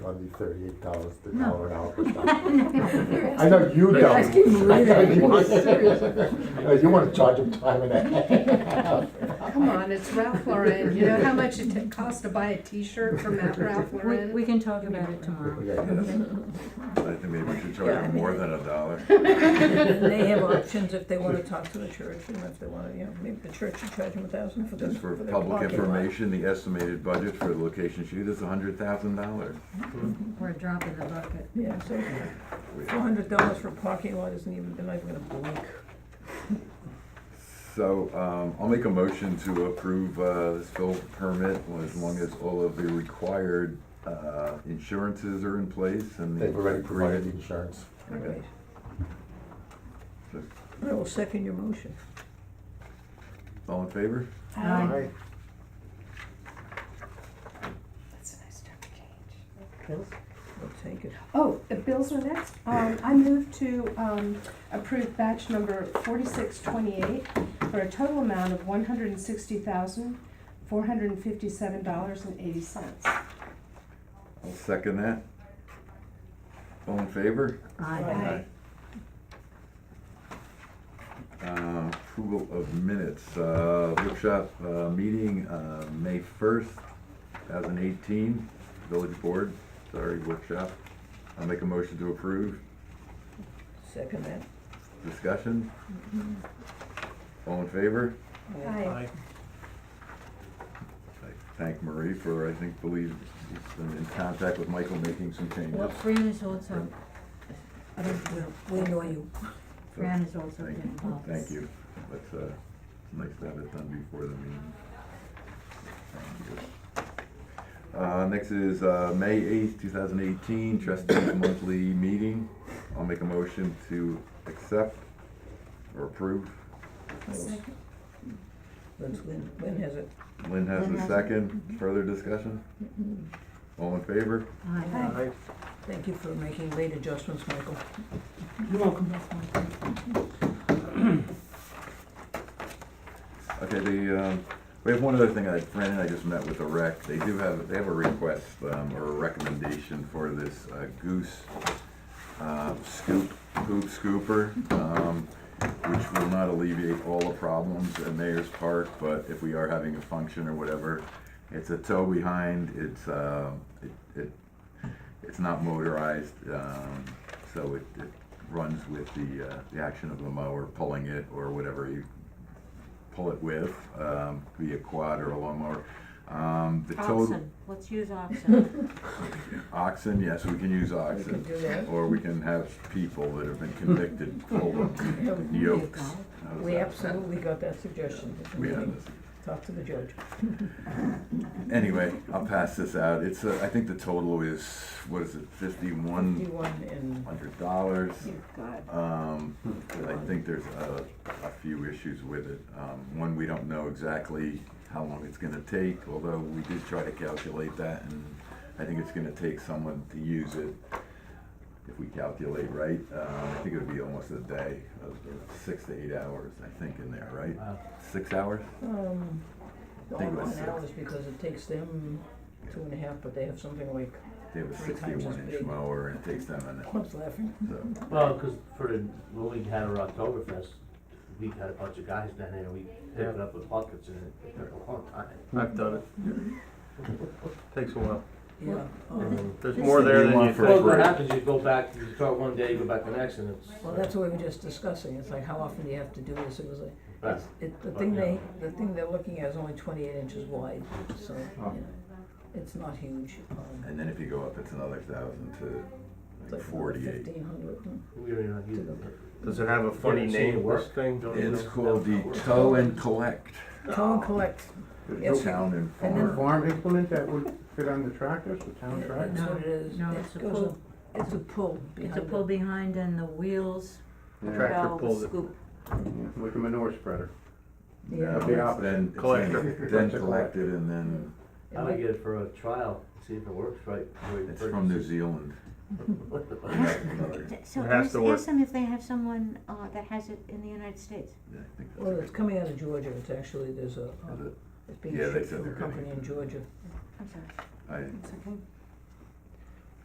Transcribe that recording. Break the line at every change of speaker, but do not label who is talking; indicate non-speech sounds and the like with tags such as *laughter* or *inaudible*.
gonna be thirty-eight dollars to
No.
dollar an hour per
*laughs*
stop. I
I
know you
You're
don't.
asking me
*laughs* I know
that.
you don't.
Seriously.
Uh, You wanna charge them time and a
Come on, it's Ralph Lauren. You know how much it t- costs to buy a T-shirt from
*laughs*
Mount Ralph
We,
Lauren?
we can talk about it tomorrow.
half.
*laughs*
I think maybe we should charge them more than a dollar.
And they have options if they wanna talk to the church, and if they wanna, you know, maybe the church should charge them a thousand for this,
Just for
for their
public
parking lot.
information, the estimated budget for the location shoot is a hundred thousand dollars.
We're dropping the bucket.
Yeah, so four hundred dollars for a parking lot isn't even, they're not even gonna blink.
So, um, I'll make a motion to approve, uh, this fill permit as long as all of the required, uh, insurances are in place and.
*laughs*
the-
They've already provided the insurance.
All right.
Sure.
I will second your motion.
All in favor?
Aye.
That's a nice term change.
I'll take it.
Oh, the bills are next. Um, I move to, um, approve batch number forty-six twenty-eight for a total amount of one hundred and sixty thousand, four hundred and fifty-seven dollars and eighty cents.
I'll second that. All in favor?
Aye.
Uh, approval of minutes, uh, workshop, uh, meeting, uh, May first, two thousand eighteen, village board, sorry, workshop. I'll make a motion to approve,
Second that.
discussion? All in favor?
Aye.
I Thank Marie for, I think, believe, she's been in contact with Michael making some
Well,
changes.
Fran is also,
I don't, we don't- we annoy you.
Fran is also
Thank you.
getting involved.
Thank you, that's, uh, it's nice to have it done before the meeting. Thank you. Uh, next is, uh, May eighth, two thousand eighteen, trustees monthly meeting, I'll make a motion to accept or approve.
Second.
That's Lynn, Lynn has it.
Lynn has
Lynn has Mm-hmm.
a
it.
second, further discussion? All in favor?
Aye.
Thank you for making late adjustments, Michael.
Okay, the, um, we have one other thing, I, Fran and I just met with the rec, they do have, they have a request, um, or a recommendation for this uh, goose, uh, scoop, hoop scooper, um, which will not alleviate all the problems at Mayor's Park, but if we are having a function or whatever, it's a tow behind, it's, uh, it, it, it's not motorized, um, so it, it runs with the, uh, the action of the mower pulling it or whatever you pull it with, um, could be a quad or a lawnmower. Um, the tow,
Oxen, let's use
*laughs*
oxen.
oxen, yes, we can use
We can
oxen.
do that.
Or we can have people that have been convicted for *laughs* yokes. How does
We
that?
absolutely got that suggestion.
We have this.
Talk to the judge.
Anyway, I'll pass this out. It's, uh, I think the total is, what is it, fifty-one
Fifty-one and,
hundred dollars?
God.
Um,
Hmm.
but I think there's a, a few issues with it. Um, one, we don't know exactly how long it's gonna take, although we did try to calculate that, and I think it's gonna take someone to use it, if we calculate right. Uh, I think it would be almost a day, of six to eight hours, I think, in there, right? Six hours?
um,
I
all
think it was
one
six.
hours because it takes them two and a half, but they have something like, *laughs*
They have a
Three times as
sixty-one inch
big.
mower, and it takes them an
I was laughing.
so,
Well, because for the, when we had our Oktoberfest, we had a bunch of guys down there, we picked it up with buckets and it took a long time.
I've done it. Takes a while.
Yeah.
Oh.
Oh.
um,
Um,
There's more there than you
For
Well,
think.
what
free.
happens, you go back, you start one day, you go back the next and it's.
Well, that's what we were just discussing. It's like, how often do you have to do this? It was like,
Right.
it's- it, the thing they, the thing they're looking at is only twenty-eight inches wide, so, you know, it's not huge. um,
and then if you go up, it's another thousand to
It's
like
like
forty-eight.
fifteen hundred.
We were not using it.
Does it have a funny
Yeah, so
name,
you work.
this thing?
It's called the tow and collect.
Tow and collect. Yes.
Town and
And then-
farm.
farm implement that would fit on the tractors, the town tractor?
That's what it is.
No,
It
it's a
goes
pull.
up- It's a pull
It's
behind
a
it.
pull behind and the wheels
Tractor
go
pulls it.
scoop.
Like a manure spreader.
Yeah.
No,
The
it's
opposite.
then, it's
Collector.
then then collected and then,
I would get it for a trial, see if it works right. before you
it's
purchase
from New
it.
Zealand.
*laughs*
So
*laughs*
It has
ask,
to work.
ask them if they have someone uh, that has it in the United States.
Yeah, I think
Well,
that's
it's coming out of Georgia, it's actually, there's a,
Is
um,
it?
it's being
Yeah, they
shipped from
said
a
they're getting
company
it.
in Georgia.
I'm sorry.
right.
It's okay.